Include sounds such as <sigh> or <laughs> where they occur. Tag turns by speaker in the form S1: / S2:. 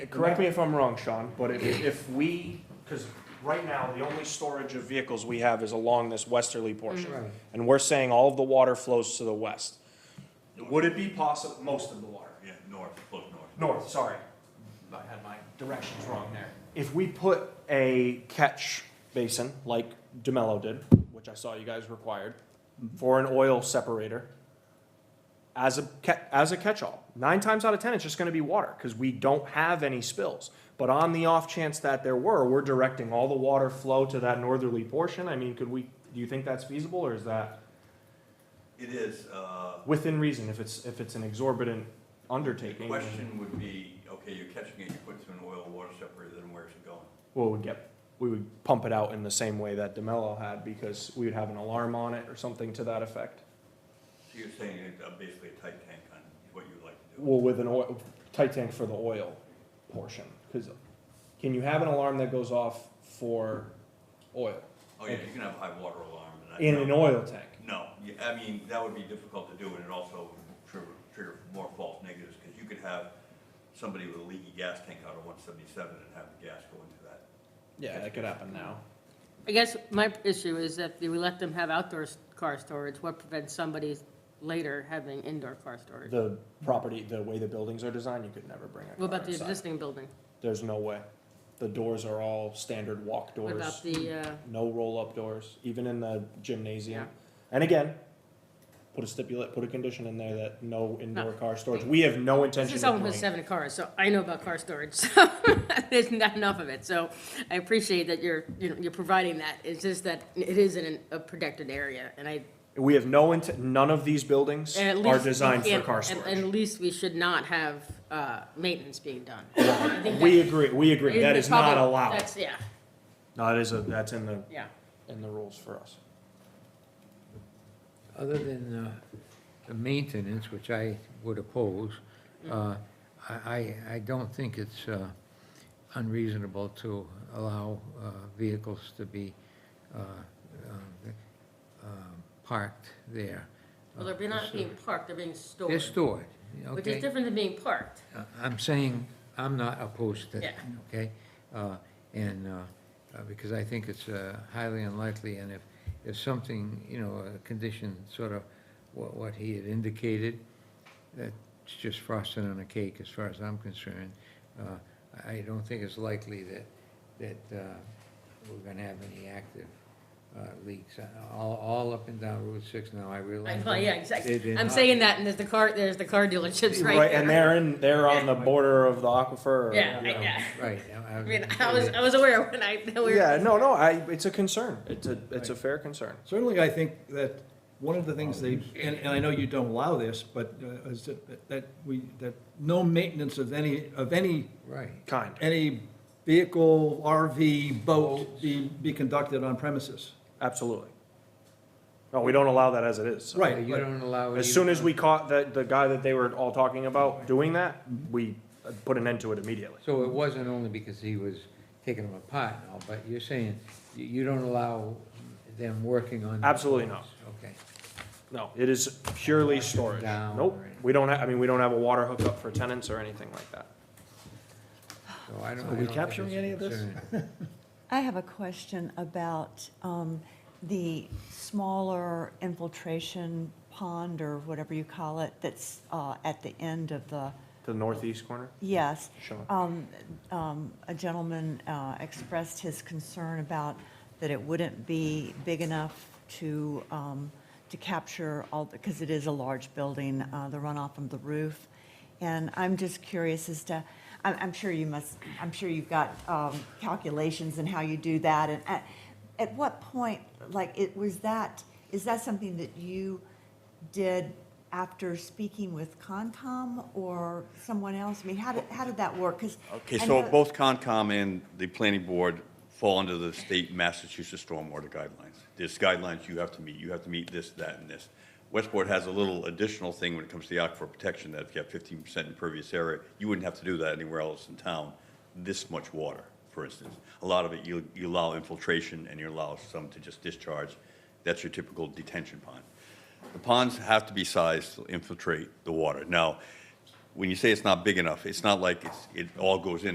S1: Correct me if I'm wrong, Sean, but if, if we, because right now, the only storage of vehicles we have is along this westerly portion.
S2: Right.
S1: And we're saying all of the water flows to the west. Would it be possible, most of the water?
S3: Yeah, north, look north.
S1: North, sorry. I had my directions wrong there. If we put a catch basin, like DeMello did, which I saw you guys required, for an oil separator, as a, ca- as a catch-all, nine times out of ten, it's just gonna be water, because we don't have any spills. But on the off chance that there were, we're directing all the water flow to that northerly portion. I mean, could we, do you think that's feasible, or is that
S3: It is, uh,
S1: within reason if it's, if it's an exorbitant
S3: the
S1: undertaking?
S3: question would be, okay, you're catching it, you put it through an oil water separator, then where's it going?
S1: well, we'd get, we would pump it out in the same way that DeMello had because we would have an alarm on it or something to that effect.
S3: So you're saying it- uh, basically a tight tank on what you would like to do.
S1: Well, with an oil, tight tank for the oil portion, because can you have an alarm that goes off for oil
S3: Oh, yeah, you can have high water alarm and that.
S1: in an oil tank?
S3: No, you- I mean, that would be difficult to do and it also would trigger, trigger more false negatives because you could have somebody with a leaky gas tank out of one seventy-seven and have the gas go into that.
S1: Yeah, that could happen now.
S4: I guess my issue is that if we let them have outdoor s- car storage, what prevents somebody later having indoor car storage?
S1: The property, the way the buildings are designed, you could never bring a
S4: What
S1: car
S4: about the
S1: inside.
S4: existing building?
S1: There's no way. The doors are all standard walk
S4: What
S1: doors,
S4: about the, uh,
S1: no roll-up doors, even in the gymnasium.
S4: yeah,
S1: And again, put a stipulate, put a condition in there that no indoor
S4: No.
S1: car storage, we have no
S4: this
S1: intention
S4: is
S1: of
S4: someone with
S1: doing.
S4: seven cars, so I know about car storage, <laughs> so there's not enough of it, so I appreciate that you're, you know, you're providing that, it's just that it is in an- a protected area, and I,
S1: We have no intent, none of these buildings
S4: and at least.
S1: are
S4: we
S1: designed for
S4: can't-
S1: car
S4: and-
S1: storage.
S4: and At least we should not have, uh, maintenance being done. I think
S1: We
S4: that-
S1: agree, we agree, that is not
S4: probably-
S1: allowed.
S4: That's, yeah,
S1: No, that is a, that's in the,
S4: yeah.
S1: in the rules for us.
S2: Other than uh, the maintenance, which I would oppose, uh, I, I- I don't think it's uh, unreasonable to allow uh, vehicles to be uh, um, um, parked there.
S4: Well, they're not being parked, they're being
S2: They're
S4: stored,
S2: stored,
S4: which is
S2: okay?
S4: different than being parked.
S2: Uh, I'm saying, I'm not opposed to that,
S4: Yeah.
S2: okay? Uh, And, uh, uh, because I think it's uh, highly unlikely, and if, if something, you know, a condition, sort of what, what he had indicated, that's just frosting on a cake, as far as I'm concerned. Uh, I don't think it's likely that, that uh, we're gonna have any active uh, leaks, Uh, all, all up and down Route 6 now, I
S4: I
S2: realize.
S4: know, yeah,
S2: They-
S4: exactly.
S2: they're
S4: I'm
S2: not-
S4: saying that, and there's the car, there's the car dealerships right there.
S1: Right, and they're in, they're on the border of the aquifer. or,
S4: Yeah,
S1: you know.
S4: I- yeah.
S2: Oh, Right. I-
S4: <laughs> I mean, I was, I was aware when I, <laughs> that we were.
S1: Yeah, no, no, I, it's a concern, it's a, it's a fair concern.
S5: Certainly, I think that one of the things they, and, and I know you don't allow this, but uh, is that, that we, that no maintenance of any, of any,
S2: Right.
S1: Kind,
S5: any vehicle, RV, boat be, be conducted on premises.
S1: absolutely. No, we don't allow that as it is, so.
S5: Right,
S2: You
S5: but-
S2: don't allow. it
S1: As
S2: even
S1: soon as
S2: on-
S1: we caught the, the guy that they were all talking about doing that, we uh, put an end to it immediately.
S2: So it wasn't only because he was taking them apart and all, but you're saying you, you don't allow them working on.
S1: Absolutely not.
S2: Okay.
S1: No, it is purely storage.
S2: Down
S1: Nope,
S2: or anything.
S1: we don't have, I mean, we don't have a water hookup for tenants or anything like that.
S2: So I don't.
S5: Are we
S2: I don't think
S5: capturing
S2: it's a
S5: any of this?
S2: concern.
S6: I have a question about um, the smaller infiltration pond or whatever you call it that's uh, at the end of the,
S1: To the northeast corner,
S6: yes.
S1: Sean.
S6: Um, um, A gentleman uh, expressed his concern about that it wouldn't be big enough to, um, to capture all, because it is a large building, uh, the runoff from the roof. And I'm just curious as to, I'm, I'm sure you must, I'm sure you've got um, calculations and how you do that. And at, at what point, like, it, was that, is that something that you did after speaking with Concom or someone else? I mean, how did, how did that work? Because.
S3: Okay, so both Concom and the planning board fall under the state Massachusetts stormwater guidelines. There's guidelines you have to meet, you have to meet this, that, and this. Westport has a little additional thing when it comes to the aquifer protection, that if you have fifteen percent impervious area, you wouldn't have to do that anywhere else in town, this much water, for instance. A lot of it, you, you allow infiltration and you allow some to just discharge, that's your typical detention pond. The ponds have to be sized to infiltrate the water. Now, when you say it's not big enough, it's not like it's, it all goes in